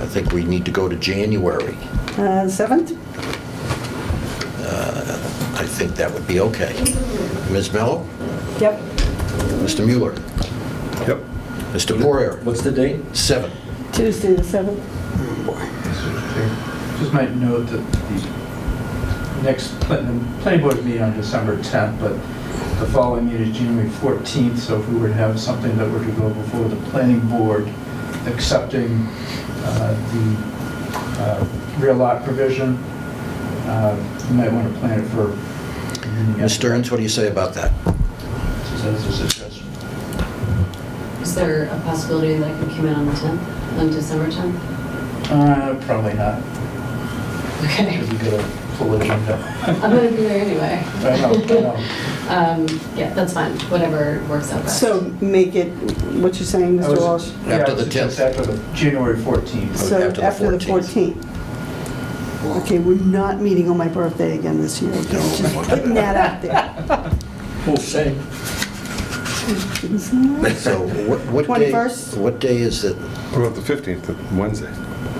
I think we need to go to January. Uh, 7th? I think that would be okay. Ms. Mello? Yep. Mr. Mueller? Yep. Mr. Poirier? What's the date? Seven. Tuesday, the 7th. Just might note that the next plan- planning board meeting on December 10th, but the following meeting is January 14th, so if we were to have something that were to go before the planning board accepting uh, the uh, rear lot provision, uh, you might want to plan it for. Ms. Stearns, what do you say about that? Just as a suggestion. Is there a possibility that I could come in on the 10th, on December 10th? Uh, Probably not, Okay, because we got a full agenda. I'm going to be there anyway. I know, I know. Um, Yeah, that's fine, whatever works out best. So make it, what you're saying, I Mr. was- Walsh? yeah, I After the was just 10th. After the January 14th. So after the 14th. Okay, we're not meeting on my birthday again this year. okay? Just putting that out there. We'll see. So what what day? 21st? What day is it? What about the 15th, Wednesday?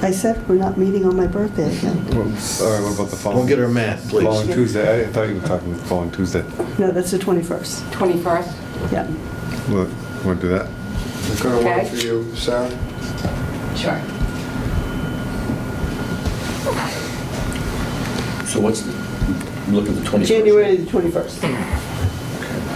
I said we're not meeting on my birthday again. Well, All right, what about the following? Don't get her mad, please. Following Tuesday, I thought you were talking the following Tuesday. No, that's the 21st. 21st? Yeah. Well, Want to do that? It's going to work Okay. for you, Sarah? Sure. So what's, the- look at the 21st. January the 21st.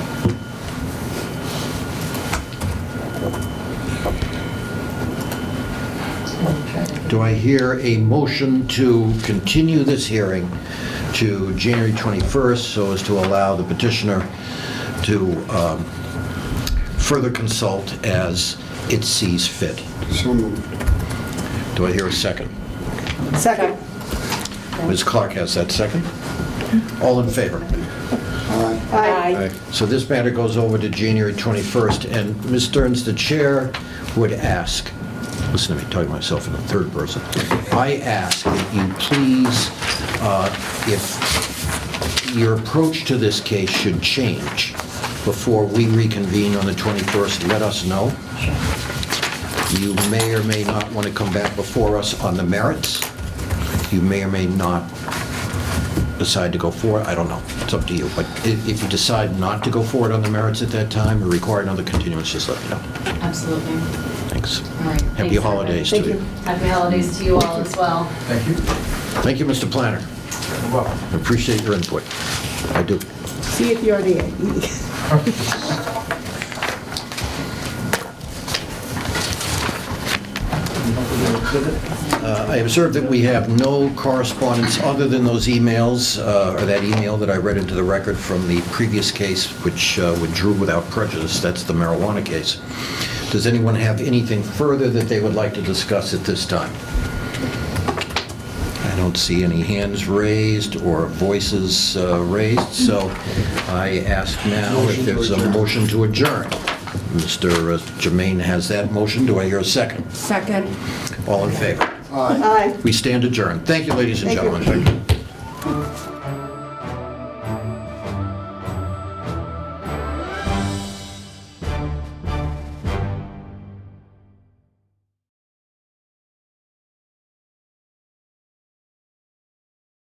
So we'll try to- Do I hear a motion to continue this hearing to January 21st so as to allow the petitioner to um, further consult as it sees fit? So moved. Do I hear a second? Second. Ms. Clark has that second. All in favor? All right. Aye. Aye. So this matter goes over to January 21st, and Ms. Stearns, the chair, would ask, listen to me, talking to myself in the third person, I ask that you please, uh, if your approach to this case should change before we reconvene on the 21st, let us know. You may or may not want to come back before us on the merits. You may or may not decide to go for it, I don't know, it's up to you. But i- if you decide not to go forward on the merits at that time or require another continuance, just let me know. Absolutely. All Thanks. right. Happy Thanks, everybody. holidays to Thank you. you. Happy holidays to you all as well. Thank you. Thank you, Mr. Planner. You're welcome. I Appreciate your input. I do. See you at the RDA. Uh, I observe that we have no correspondence other than those emails, uh, or that email that I read into the record from the previous case, which uh, withdrew without prejudice, that's the marijuana case. Does anyone have anything further that they would like to discuss at this time? I don't see any hands raised or voices uh, raised, so I ask now if there's a motion to adjourn. Mr. Jermaine has that motion, do I hear a second? Second. All in favor? All right. Aye. We stand adjourned. Thank you, ladies and Thank you. gentlemen.